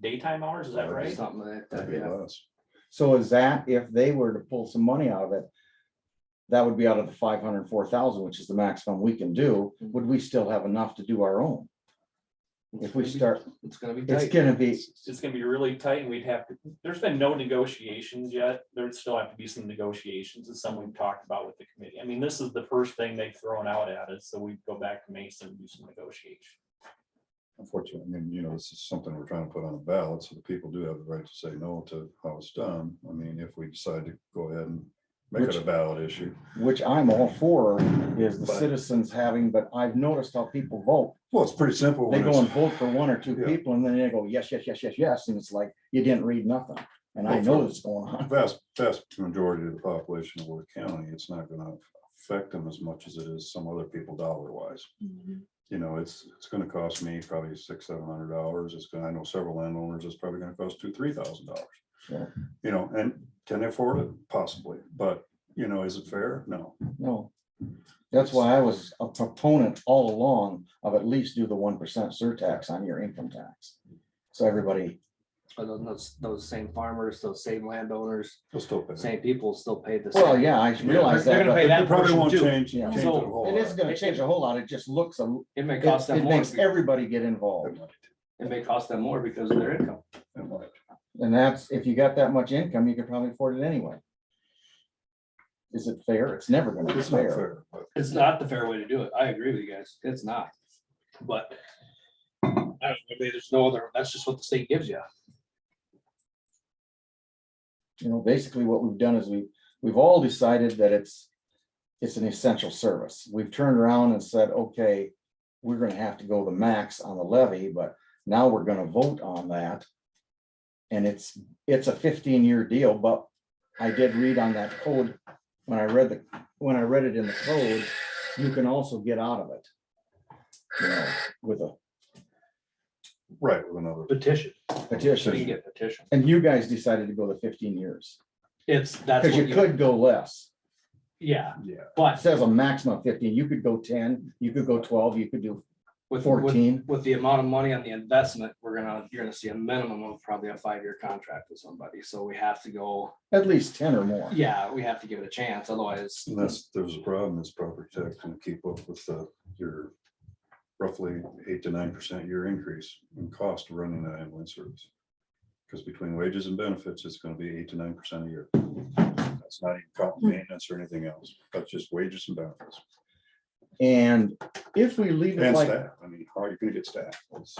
daytime hours, is that right? Something like that, That'd be yeah. less. So is that, if they were to pull some money out of it, that would be out of the five hundred and four thousand, which is the maximum we can do, Mm-hmm. would we still have enough to do our own? If we It's gonna be- start, It's gonna be it's tight. gonna be, It's it's gonna be really tight and we'd have to, there's been no negotiations yet. There'd still have to be some negotiations. It's something we've talked about with the committee. I mean, this is the first thing they've thrown out at us, so we go back to Mason and do some negotiation. Unfortunately, I mean, you know, this is something we're trying to put on a ballot, so the people do have the right to say no to how it's done. I mean, if we decide to go ahead and make it Which- a ballot issue. which I'm all for, is the But- citizens having, but I've noticed how people vote. Well, it's pretty simple. They when go and it's- vote for one or two Yeah. people and then they go, yes, yes, yes, yes, yes, and it's like, you didn't read nothing, and I Well, know for- this going on. Vast, vast majority of the population of Worth County, it's not gonna affect them as much as it is some other people dollar wise. You know, it's, it's gonna cost me probably six, seven hundred dollars. It's gonna, I know several landowners, it's probably gonna cost two, three thousand Yeah. dollars. You know, and can they afford it? Possibly, but you know, is it fair? No. No. That's why I was a proponent all along of at least do the one percent surtax on your income tax. So everybody, But then those, those same farmers, those same landowners, They'll still pay. same people still pay the. well, same. yeah, I realize they're that, gonna but pay that It probably portion won't too. change. Yeah. change it So, a whole it is lot. gonna change a whole lot. It just looks, a It may it cost it them more, makes be- it everybody get involved. It might, may cost them more because of their income. it might. And that's, if you got that much income, you could probably afford it anyway. Is it fair? It's never gonna be It's not fair. fair, but It's not the fair way to do it. I agree with you guys. It's not. But I don't know, maybe there's no other, that's just what the state gives you. You know, basically what we've done is we, we've all decided that it's, it's an essential service. We've turned around and said, okay, we're gonna have to go the max on the levy, but now we're gonna vote on that. And it's, it's a fifteen-year deal, but I did read on that code, when I read the, when I read it in the code, you can also get out of it. You know, with a right with another. Petition, so you can petition, get petition. and you guys decided to go the fifteen years, It's, that's. because what you could go less. Yeah, Yeah. It but says a maximum of fifteen, you could go ten, you could go twelve, you could do with. with- fourteen. with the amount of money on the investment, we're gonna, you're gonna see a minimum of probably a five-year contract with somebody, so we have to go, At least ten or more. yeah, we have to give it a chance, otherwise. Unless there's a problem, it's property tax gonna keep up with the, your roughly eight to nine percent year increase in cost of running that ambulance service. Because between wages and benefits, it's gonna be eight to nine percent a year. That's not even counting maintenance or anything else. That's just wages and benefits. And if we leave it And like, staff, I mean, how are you gonna get staff? It's-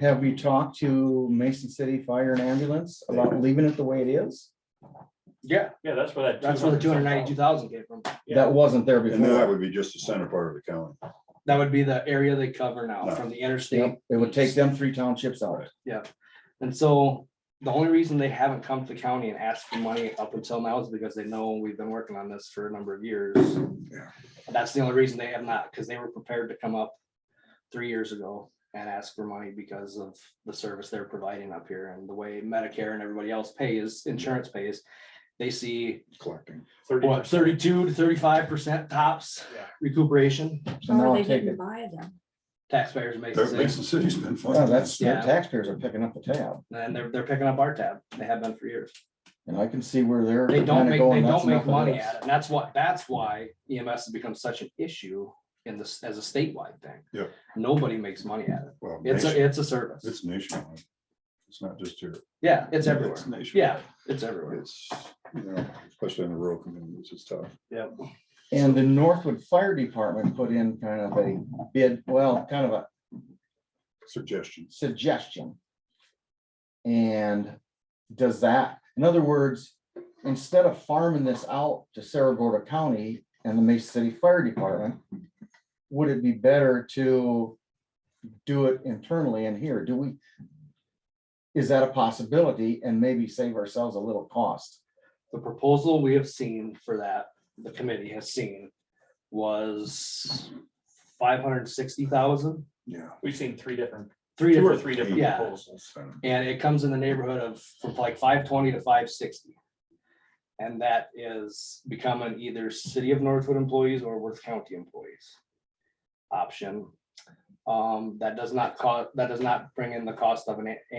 have we talked to Mason City Fire and Ambulance about leaving it the way it is? Yeah, Yeah, that's where that. that's where the two hundred ninety-two thousand came from, That wasn't there And then that before. would be just the center part of the county. that would be the area they cover now, from the interstate. Yep, It would take them three townships out. And so, the only reason they haven't come to the county and asked for money up until now is because they know we've been working on this for a number of years. That's the only reason they have not, because they were prepared to come up three years ago and ask for money because of the service they're providing up here and the way Medicare and everybody else pays, insurance pays. They see collecting. what thirty-two to thirty-five percent tops Yeah. recuperation, So How now are Oh, they I'll take didn't it. buy them? taxpayers make. Their Mason City's been Yeah, Oh, funding. that's, their Yeah. taxpayers are picking up the tab And they're, they're picking up our tab, they have been for years. and I can see where they're. They don't kinda make, they going, that's don't make enough of money this. at it, and that's what, that's why EMS has become such an issue in this, as a statewide thing. Yeah. Nobody makes money at it, Well, it's nation- a, it's a service, It's nationwide. It's not just here. yeah, it's everywhere, nationwide. yeah, it's everywhere. It's, you know, especially in the rural communities, it's tough. Yep. And the Northwood Fire Department put in kind of a bid, well, kind of a Suggestions. suggestion. And does that, in other words, instead of farming this out to Saragordo County and the Mesa City Fire Department, would it be better to do it internally in here? Do we? Is that a possibility and maybe save ourselves a little cost? The proposal we have seen for that, the committee has seen, was five hundred and sixty thousand, Yeah. We've seen three different, three two or different, three different Yeah. proposals. um, and it comes in the neighborhood of from like five twenty to five sixty. And that is becoming either city of Northwood employees or Worth County employees. Option. Um, that does not cost, that does not bring in the cost of an a-